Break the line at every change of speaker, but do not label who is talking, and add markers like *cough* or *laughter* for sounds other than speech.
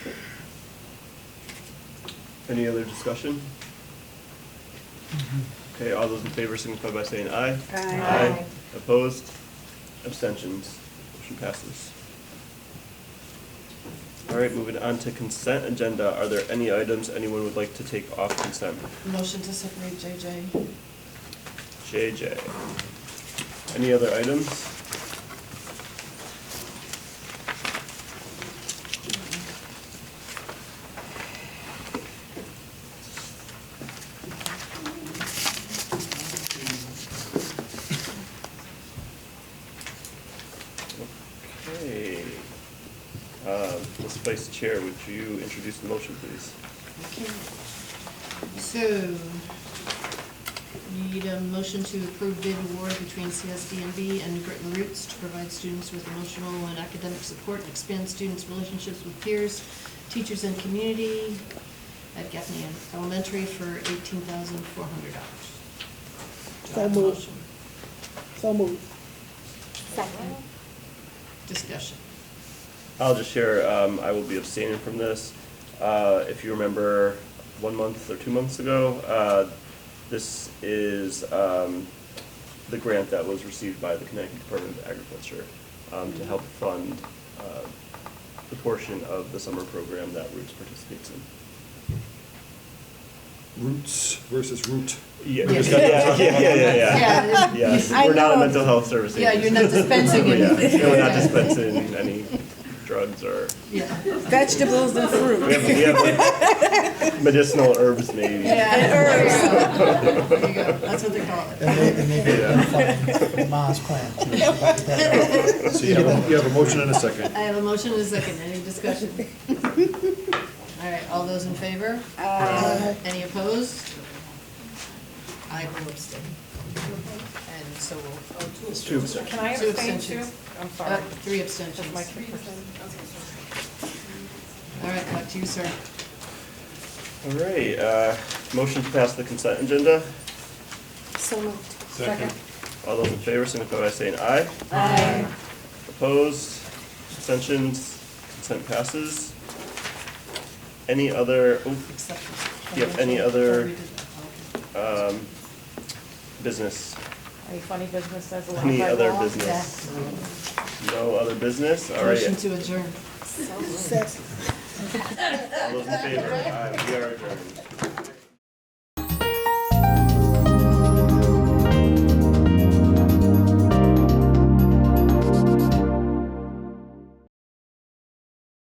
Any other discussion? Okay, all those in favor signify by saying aye.
Aye. Aye.
Opposed? Abstentions? Motion passes. All right, moving on to consent agenda. Are there any items anyone would like to take off consent?
Motion to separate JJ.
JJ. Any other items? Okay. Uh, Ms. Vice Chair, would you introduce the motion, please?
Okay. So, need a motion to approve bid award between CSDMB and New Britain Roots to provide students with emotional and academic support and expand students' relationships with peers, teachers, and community at Gaffney Elementary for eighteen thousand four hundred
So
dollars.
moved. So moved.
Second.
Discussion.
I'll just share, um, I will be abstaining from this. Uh, if you remember, one month or two months ago, uh, this is, um, the grant that was received by the Connecticut Department of Agriculture, um, to help fund, uh, the portion of the summer program that Roots participates in.
Roots versus root.
Yeah,
Yeah.
we just got- yeah, yeah, yeah, yeah, yeah.
Yeah,
Yes,
I
we're not a
know.
mental health service
Yeah, you're not
agency.
dispensing
*laughs* Yeah,
anything.
We're not dispensing any drugs or
Yeah.
Vegetables and fruit.
We have, we have medicinal herbs maybe.
Yeah.
And
There you go. That's what they call
And they,
it.
and they did find Ma's plan.
So you have, a- you have a motion and a second.
I have a motion and a second. Any *laughs* discussion? All right, all those in favor?
Aye.
Any opposed? I will abstain. And so will, oh,
It's two abstentions.
Can I
Two
abstain too?
abstentions.
I'm
uh,
sorry.
three
Just
abstentions.
my three percent.
All right, back to you, sir.
All right, uh, motion to pass the consent agenda.
So moved.
Second.
All those in favor signify by saying aye.
Aye.
Opposed, abstentions, consent passes. Any other, oh,
Except-
Do you have any other-
Oh, we did that.
um, business?
Any funny business says allowed by law?
Any other
Yeah.
business? No other business? All right.
Motion to adjourn.
Second.
All those in favor? Aye, we are adjourned.